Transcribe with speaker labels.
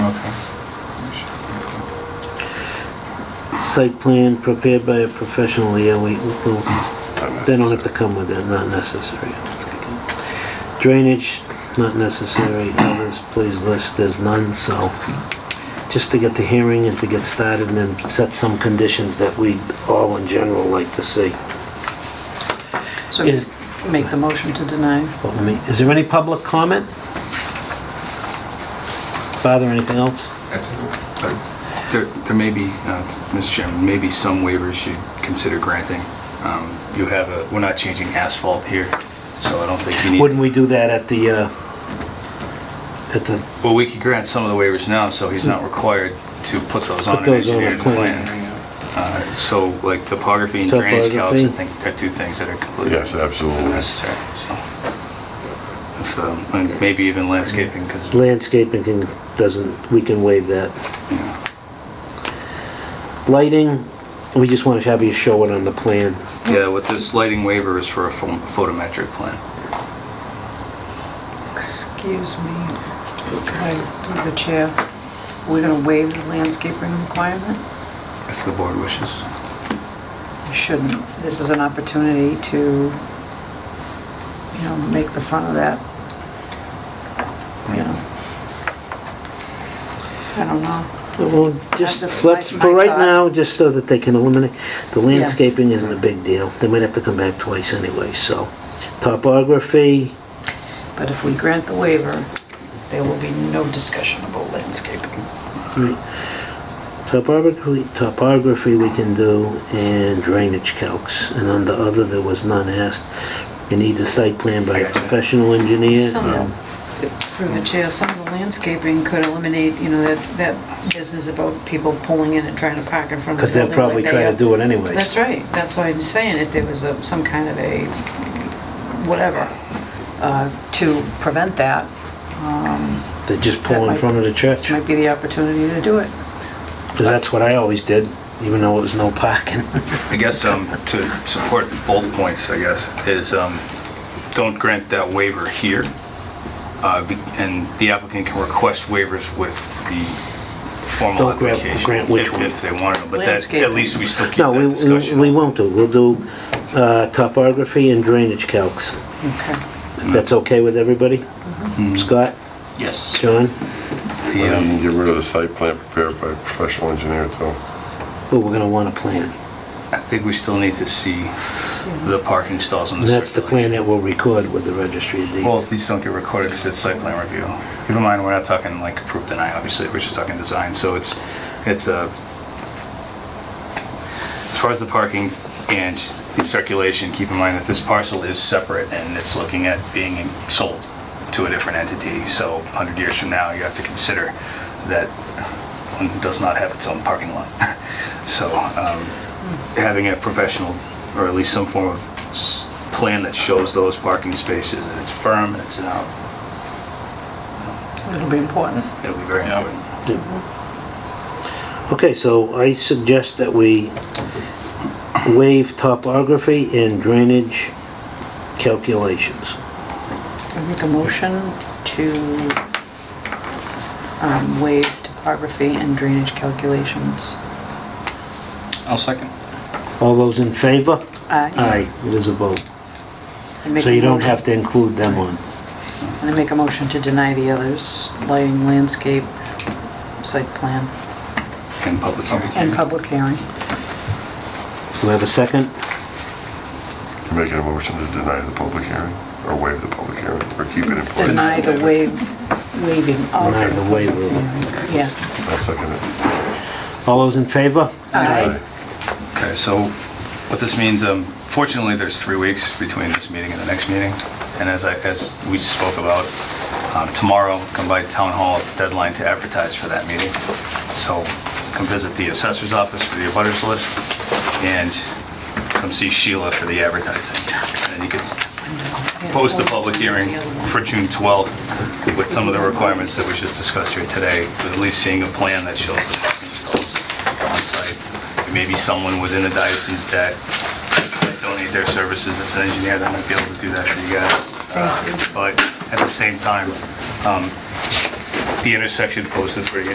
Speaker 1: site plan prepared by a professional, yeah, we, we'll, they don't have to come with it, not necessary. Drainage, not necessary, others, please list, there's none, so, just to get the hearing and to get started and then set some conditions that we all in general like to see.
Speaker 2: So
Speaker 1: Is-
Speaker 2: make the motion to deny.
Speaker 1: But let me- Is there any public comment? Father, anything else?
Speaker 3: There there may be, uh, Mr. Chairman, maybe some waivers you consider granting. Um, You have a, we're not changing asphalt here, so I don't think you need...
Speaker 1: Wouldn't we do that at the, uh, at the,
Speaker 3: Well, we could grant some of the waivers now, so he's not required to put those on
Speaker 1: Put
Speaker 3: an
Speaker 1: those on a
Speaker 3: engineered
Speaker 1: plan.
Speaker 3: plan. Uh, So like topography and drainage calcs, I
Speaker 1: Topography.
Speaker 3: think, are two things that are completely
Speaker 4: Yes, absolutely.
Speaker 3: unnecessary, so... If, um, And maybe even landscaping, because, you
Speaker 1: landscaping can, doesn't, we can waive that.
Speaker 3: know,
Speaker 1: Lighting, we just want to have you show it on the plan.
Speaker 3: yeah, with this lighting waiver is for a pho- photometric plan.
Speaker 2: Excuse me, I- through the chair, we're gonna waive the landscaping requirement?
Speaker 3: If the board wishes.
Speaker 2: We shouldn't. This is an opportunity to, you know, make the fun of that. You know. I don't know.
Speaker 1: Well, just,
Speaker 2: That's my-
Speaker 1: let's, for
Speaker 2: my
Speaker 1: right
Speaker 2: thought.
Speaker 1: now, just so that they can eliminate, the landscaping isn't a big deal. They might have to come back twice anyway, so. Topography,
Speaker 2: But if we grant the waiver, there will be no discussion about landscaping.
Speaker 1: hmm, topography, topography we can do, and drainage calcs. And under other, there was none asked. You need the site plan by a professional engineer. Um,
Speaker 2: Some of, through the chair, some of the landscaping could eliminate, you know, that, that business about people pulling in and trying to park in front of
Speaker 1: Because
Speaker 2: the
Speaker 1: they'll
Speaker 2: building.
Speaker 1: probably
Speaker 2: like
Speaker 1: try
Speaker 2: they
Speaker 1: to do it anyways.
Speaker 2: That's right, that's why I'm saying, if there was a, some kind of a, whatever, uh, to prevent that, um,
Speaker 1: They just pull
Speaker 2: That
Speaker 1: in
Speaker 2: might-
Speaker 1: front of the
Speaker 2: this
Speaker 1: church,
Speaker 2: might be the opportunity to do it.
Speaker 1: because that's what I always did, even though it was no parking.
Speaker 3: I guess um, to support both points, I guess, is um, don't grant that waiver here. uh, be- And the applicant can request waivers with the formal
Speaker 1: Don't grant-
Speaker 3: application.
Speaker 1: grant which
Speaker 3: if-
Speaker 1: one?
Speaker 3: If they want to, but that, at
Speaker 2: Landscaping.
Speaker 3: least we still keep
Speaker 1: No, we,
Speaker 3: that
Speaker 1: we
Speaker 3: discussion.
Speaker 1: we won't do, we'll do uh, topography and drainage calcs.
Speaker 2: Okay.
Speaker 1: That's okay with everybody? Scott,
Speaker 3: Yes.
Speaker 1: John?
Speaker 4: Well,
Speaker 3: um,
Speaker 4: You can get rid of the site plan prepared by a professional engineer too.
Speaker 1: Well, we're gonna want a plan.
Speaker 3: I think we still need to see the parking stalls and
Speaker 1: And
Speaker 3: the
Speaker 1: that's the plan
Speaker 3: circulation.
Speaker 1: that we'll record with the registry of
Speaker 3: Well,
Speaker 1: deeds.
Speaker 3: these don't get recorded because it's site plan review. Keep in mind, we're not talking like approved deny, obviously, we're just talking design, so it's, it's a, as far as the parking and the circulation, keep in mind that this parcel is separate and it's looking at being sold to a different entity, so 100 years from now, you have to consider that one does not have its own parking lot. So um, having a professional, or at least some form of s- plan that shows those parking spaces, and it's firm, and it's out,
Speaker 2: It'll be important.
Speaker 3: it'll be very important.
Speaker 1: Okay, so I suggest that we waive topography and drainage calculations.
Speaker 2: I make a motion to um, waive topography and drainage calculations.
Speaker 5: I'll second.
Speaker 1: All those in favor?
Speaker 2: Aye.
Speaker 1: Aye, it is a vote.
Speaker 2: I make
Speaker 1: So
Speaker 2: a
Speaker 1: you don't
Speaker 2: motion-
Speaker 1: have to include them on.
Speaker 2: And I make a motion to deny the others, lighting, landscape, site plan,
Speaker 3: And public hearing.
Speaker 2: and public hearing.
Speaker 1: Do we have a second?
Speaker 4: You're making a motion to deny the public hearing, or waive the public hearing, or keep it in place.
Speaker 2: Deny the waive, waiving of.
Speaker 1: Deny the waiver.
Speaker 2: Yes.
Speaker 4: I'll second it.
Speaker 1: All those in favor?
Speaker 2: Aye.
Speaker 3: Okay, so what this means, um, fortunately, there's three weeks between this meeting and the next meeting, and as I, as we spoke about, um, tomorrow, come by town hall, is the deadline to advertise for that meeting. So come visit the assessor's office for the abutters list, and come see Sheila for the advertising. And you can post the public hearing for June 12th with some of the requirements that we just discussed here today, with at least seeing a plan that shows the parking stalls on site. Maybe someone within the diocese that that donate their services, that's an engineer, that might be able to do that for you guys. Uh, But at the same time, um, the intersection posted pretty